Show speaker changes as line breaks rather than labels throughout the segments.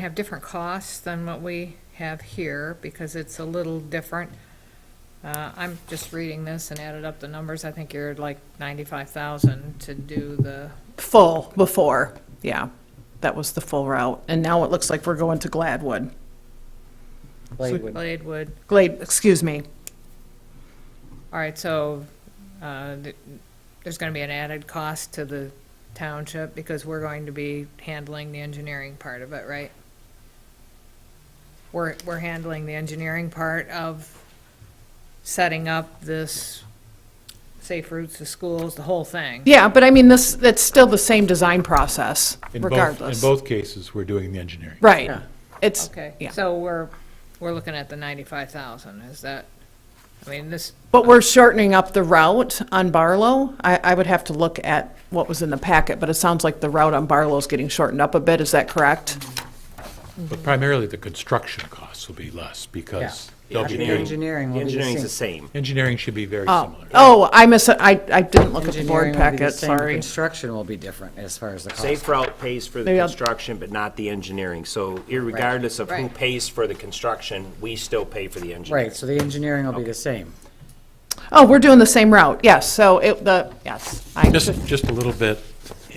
have different costs than what we have here because it's a little different. Uh, I'm just reading this and added up the numbers. I think you're like ninety-five thousand to do the,
Full before, yeah. That was the full route. And now it looks like we're going to Gladwood.
Bladewood.
blade wood.
Glade, excuse me.
All right, so, uh, th- there's gonna be an added cost to the township because we're going to be handling the engineering part of it, right? We're, we're handling the engineering part of setting up this safe routes to schools, the whole thing.
Yeah, but I mean, this, it's still the same design process
In both-
regardless.
In both cases, we're doing the engineering.
Right. It's,
Okay,
yeah.
so we're, we're looking at the ninety-five thousand, is that, I mean, this,
But we're shortening up the route on Barlow. I, I would have to look at what was in the packet, but it sounds like the route on Barlow is getting shortened up a bit. Is that correct?
But primarily, the construction costs will be less because they'll be
The
doing,
engineering
The
will be
engineering's
the
the
same.
same.
engineering should be very
Oh,
similar.
oh, I miss, I, I didn't look at the board
Engineering will be the
packet,
same. The
sorry.
Construction will be different as far as the cost.
Safe route pays for the
Maybe I'll-
construction, but not the engineering. So irregardless of who
Right.
pays for the construction, we still pay for the engineering.
Right, so the engineering will be the same.
Oh, we're doing the same route, yes. So it, the, yes. I-
Just, just a little bit,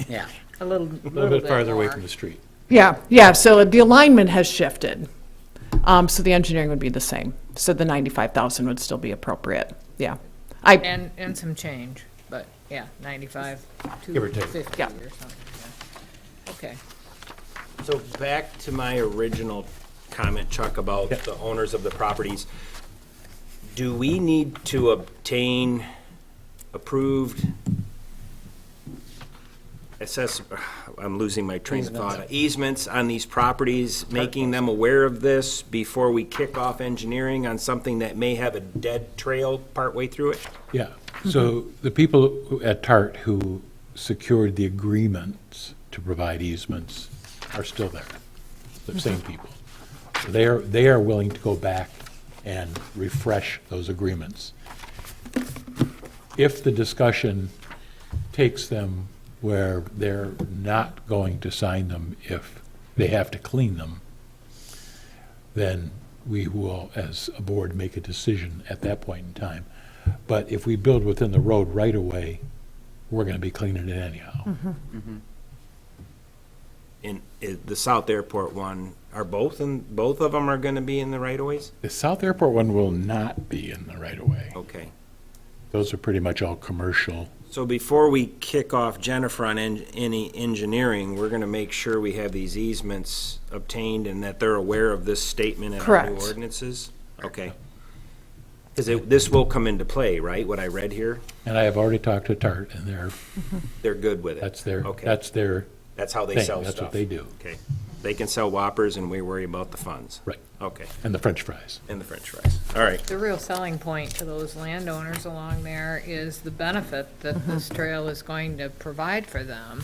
Yeah.
a little,
a little bit farther away from the street.
Yeah, yeah, so the alignment has shifted. Um, so the engineering would be the same. So the ninety-five thousand would still be appropriate, yeah. I,
And, and some change, but, yeah, ninety-five, two
Give or take.
fifty or
Yeah.
something, yeah. Okay,
So back to my original comment, Chuck, about the owners of the properties. Do we need to obtain approved assess, I'm losing my train of thought, easements on these properties, making them aware of this before we kick off engineering on something that may have a dead trail partway through it?
Yeah, so the people who- at TART who secured the agreements to provide easements are still there, the same people. So They are, they are willing to go back and refresh those agreements. If the discussion takes them where they're not going to sign them if they have to clean them, then we will, as a board, make a decision at that point in time. But if we build within the road right away, we're gonna be cleaning it anyhow.
In, in uh, the South Airport one, are both, and both of them are gonna be in the right of ways?
The South Airport one will not be in the right of way.
Okay.
Those are pretty much all commercial.
So before we kick off Jennifer on en- any engineering, we're gonna make sure we have these easements obtained and that they're aware of this statement in our new
Correct.
ordinances? Okay. Because this will come into play, right, what I read here?
And I have already talked to Tart, and they're,
They're good with it?
that's their,
Okay,
that's their
that's how they
thing,
sell stuff?
that's what they do.
Okay. They can sell Whoppers and we worry about the funds?
Right,
Okay,
and the french fries.
and the french fries. All right,
the real selling point to those landowners along there is the benefit that this trail is going to provide for them.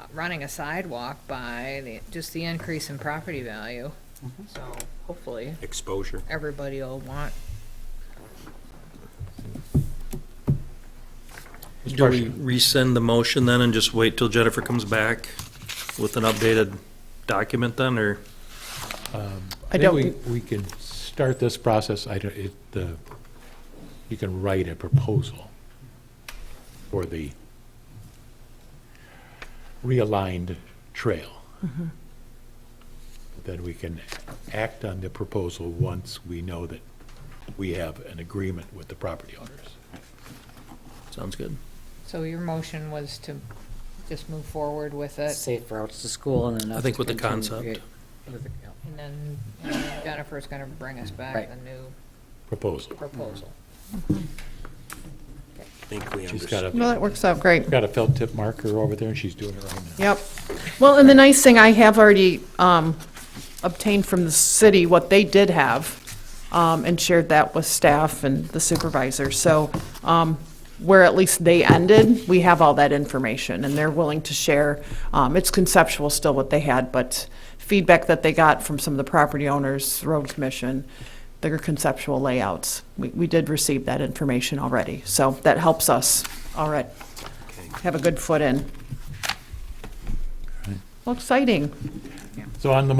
Uh, Running a sidewalk by, the- just the increase in property value, so hopefully
exposure.
everybody will want
Do we rescind the motion then and just wait till Jennifer comes back with an updated document then, or?
I
think
don't,
We we can start this process, I don't, it, the, you can write a proposal for the realigned trail.
Mm-hmm.
Then we can act on the proposal once we know that we have an agreement with the property owners.
Sounds good.
So your motion was to just move forward with it,
Safe routes to school and enough.
I think
to
with the
continue to
concept.
create- with the- yeah.
and then and then Jennifer's gonna bring us back
Right.
the new
Proposal.
proposal.
I think we
She's
understand.
got
no,
a,
that works out great.
got a felt tip marker over there, and she's doing it right now.
Yep. Well, and the nice thing, I have already um, obtained from the city what they did have um, and shared that with staff and the supervisor. So um, where at least they ended, we have all that information and they're willing to share. Um, It's conceptual still what they had, but feedback that they got from some of the property owners, road commission, their conceptual layouts. We we did receive that information already, so that helps us All right, have a good foot in. Well, exciting.
So on the